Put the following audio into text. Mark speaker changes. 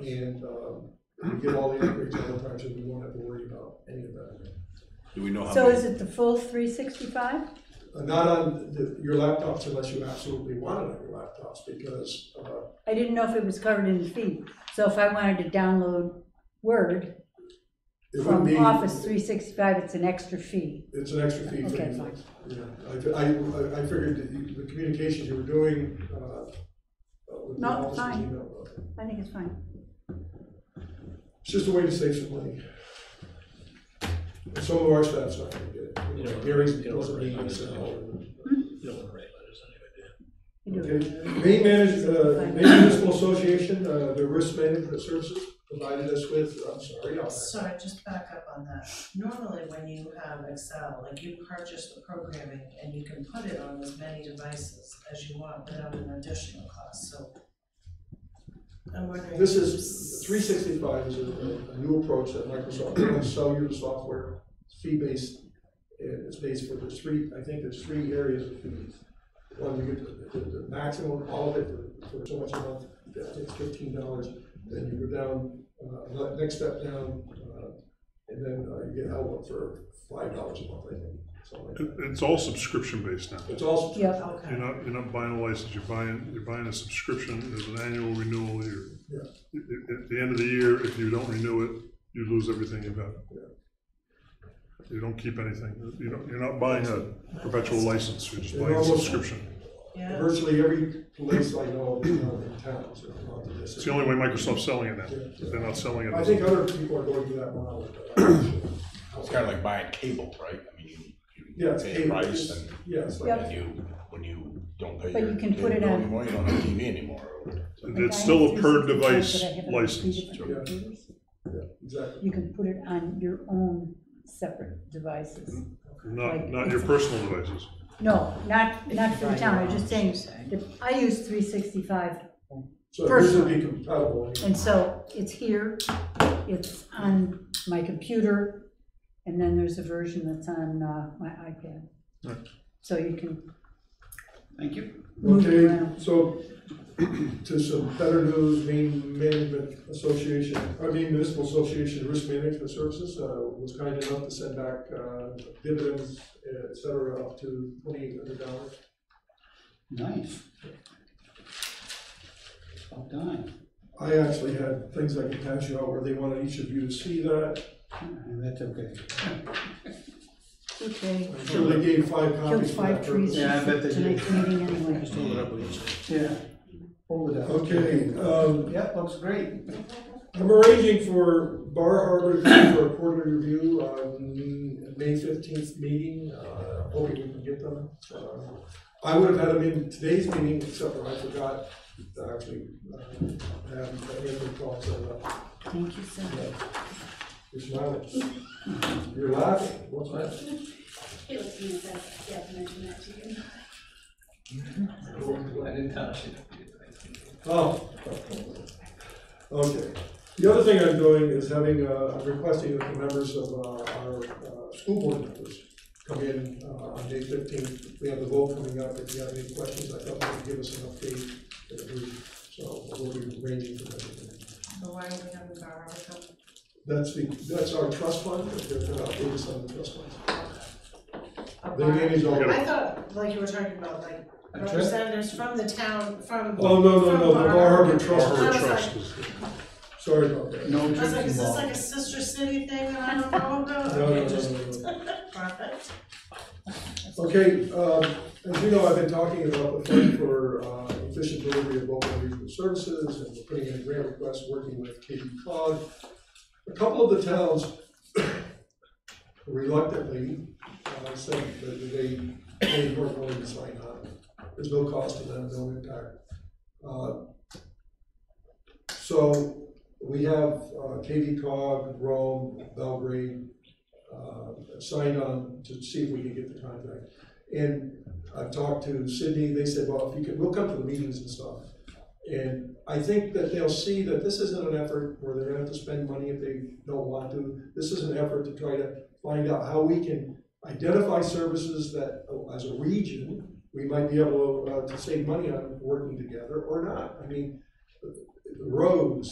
Speaker 1: and, um, we get all the upgrades all the time, so we won't have to worry about any of that.
Speaker 2: Do we know how
Speaker 3: So
Speaker 2: many?
Speaker 3: is it the full three sixty-five?
Speaker 1: Uh, Not on the- your laptops unless you absolutely want it on your laptops, because, uh,
Speaker 3: I didn't know if it was covered in the fee. So if I wanted to download Word
Speaker 1: it would be.
Speaker 3: from Office three sixty-five, it's an extra fee.
Speaker 1: It's an extra fee for
Speaker 3: Okay,
Speaker 1: you.
Speaker 3: fine.
Speaker 1: Yeah, I, fi- I, I- I figured that you- the communications you were doing, uh, with the
Speaker 3: No,
Speaker 1: office's
Speaker 3: fine.
Speaker 1: email, but
Speaker 3: I think it's fine.
Speaker 1: it's just a way to save some money. Some of our staff's not gonna get it, You know, Gary's
Speaker 4: You know,
Speaker 1: doesn't need
Speaker 4: right.
Speaker 1: this at all.
Speaker 4: You don't want to write letters anyway, do you?
Speaker 3: You
Speaker 1: Okay,
Speaker 3: do it.
Speaker 1: Maine Managed, uh, Maine Municipal Association, uh, the risk management services provided us with, I'm sorry, I'll-
Speaker 5: Sorry, just back up on that. Normally, when you have Excel, like you purchase the programming and you can put it on as many devices as you want without an additional cost, so. I'm wondering.
Speaker 1: This is, three sixty-five is a, a new approach that Microsoft, they don't sell you the software, it's fee-based. And it's based for the three, I think there's three areas of fees. One, you get the, the, the maximum, all of it for, for so much a month, I think it's fifteen dollars. Then you go down, uh, le- next step down, uh, and then uh, you get Outlook for five dollars a month, I think, something like
Speaker 6: It,
Speaker 1: that.
Speaker 6: it's all subscription based now.
Speaker 1: It's also.
Speaker 3: Yep.
Speaker 6: You're
Speaker 5: Okay,
Speaker 6: not, you're not buying a license, you're buying, you're buying a subscription, there's an annual renewal here.
Speaker 1: Yeah.
Speaker 6: At, at- at the end of the year, if you don't renew it, you lose everything you've got. You don't keep anything, you don't, you're not buying a perpetual license, you're just
Speaker 1: It
Speaker 6: buying a
Speaker 1: almost-
Speaker 6: subscription.
Speaker 5: yeah,
Speaker 1: Virtually every place I know in town is on this.
Speaker 6: It's the only way Microsoft's selling it now, they're not selling
Speaker 1: I
Speaker 6: it.
Speaker 1: think other people are going to that model. but I'm not sure.
Speaker 2: It's kind of like buying cable, right? I mean, you,
Speaker 1: Yeah,
Speaker 2: you
Speaker 1: it's
Speaker 2: pay a
Speaker 1: cable,
Speaker 2: price
Speaker 1: it's-
Speaker 2: and
Speaker 1: Yeah, it's like,
Speaker 3: Yep.
Speaker 2: then you, when you don't pay
Speaker 3: But
Speaker 2: your
Speaker 3: you can
Speaker 2: cable
Speaker 3: put it
Speaker 2: bill
Speaker 3: on-
Speaker 2: anymore, you don't have TV anymore.
Speaker 3: Like I
Speaker 6: It's still
Speaker 3: have
Speaker 6: a per
Speaker 3: 365,
Speaker 6: device
Speaker 3: but I have it on three
Speaker 6: license.
Speaker 3: different
Speaker 1: Yeah.
Speaker 3: computers.
Speaker 1: exactly.
Speaker 3: You can put it on your own separate devices.
Speaker 6: Not, not your personal devices.
Speaker 3: No, not, not for the town, I'm just saying, that I use three sixty-five,
Speaker 1: So this would be compatible.
Speaker 3: and so it's here, it's on my computer, and then there's a version that's on, uh, my iPad. So you can,
Speaker 7: Thank you.
Speaker 1: Okay, so to some better news, Maine Management Association, I mean Municipal Association Risk Management Services uh, was kind enough to send back uh, dividends, et cetera, up to twenty-eight hundred dollars.
Speaker 7: Nice. Well done.
Speaker 1: I actually had things I could pass you out where they wanted each of you to see that.
Speaker 7: And that's okay.
Speaker 3: okay,
Speaker 1: I'm sure they gave five
Speaker 3: killed
Speaker 1: copies for that
Speaker 3: five
Speaker 1: purpose.
Speaker 3: trees
Speaker 7: Yeah, I bet they
Speaker 3: for
Speaker 7: did.
Speaker 3: tonight's meeting anyway.
Speaker 4: Just hold it up, we can see.
Speaker 7: Yeah. Hold it up.
Speaker 1: Okay,
Speaker 5: uh,
Speaker 1: um,
Speaker 7: Yep, looks great.
Speaker 1: I'm arranging for Bar Harbor to come for a quarterly review on May fifteenth meeting, uh, hoping we can get them. Uh, I would have had them in today's meeting, except for I forgot to actually, uh, have Anthony call set up.
Speaker 3: Thank you so much.
Speaker 1: You're smiling. You're laughing, what's that?
Speaker 8: It was me that, yeah, mentioned that to you.
Speaker 7: I didn't touch it.
Speaker 1: Oh. Okay. The other thing I'm doing is having, uh, I'm requesting that the members of uh, our, uh, school board members come in, uh, on May fifteenth. We have the vote coming up. If you have any questions, I thought you could give us an update. in a brief. So we'll be arranging for that.
Speaker 5: so why do we have a bar harbor company?
Speaker 1: That's the, that's our trust fund. They're gonna update us on the trust funds.
Speaker 5: A
Speaker 1: They
Speaker 5: bar-
Speaker 1: manage all.
Speaker 5: I thought, like you were talking about, like
Speaker 7: trip?
Speaker 5: representatives from the town, from.
Speaker 1: Oh, no, no,
Speaker 5: from
Speaker 1: no, the Bar Harbor Trust.
Speaker 6: Harbor
Speaker 5: I was
Speaker 6: Trust
Speaker 5: like-
Speaker 6: is-
Speaker 1: Sorry about that.
Speaker 7: No
Speaker 5: I was
Speaker 7: drinking
Speaker 5: like, is this
Speaker 7: involved.
Speaker 5: like a sister city thing that I don't know about?
Speaker 1: No, no,
Speaker 5: Okay,
Speaker 1: no,
Speaker 5: just-
Speaker 1: no, no.
Speaker 5: Perfect.
Speaker 1: Okay, um, as you know, I've been talking about the fund for uh, efficient delivery of local and regional services, and we're putting in grant requests, working with Katie Cog. A couple of the towns reluctantly uh, said that they, they weren't willing to sign on. There's no cost to them, no impact. Uh, So we have uh, Katie Cog, Rome, Belgrade, uh, signed on to see if we can get the contract. And I've talked to Sydney, they said, well, if you could, we'll come to the meetings and stuff. And I think that they'll see that this isn't an effort where they're gonna have to spend money if they don't want to. This is an effort to try to find out how we can identify services that, uh, as a region, we might be able uh, to save money on working together or not. I mean, roads,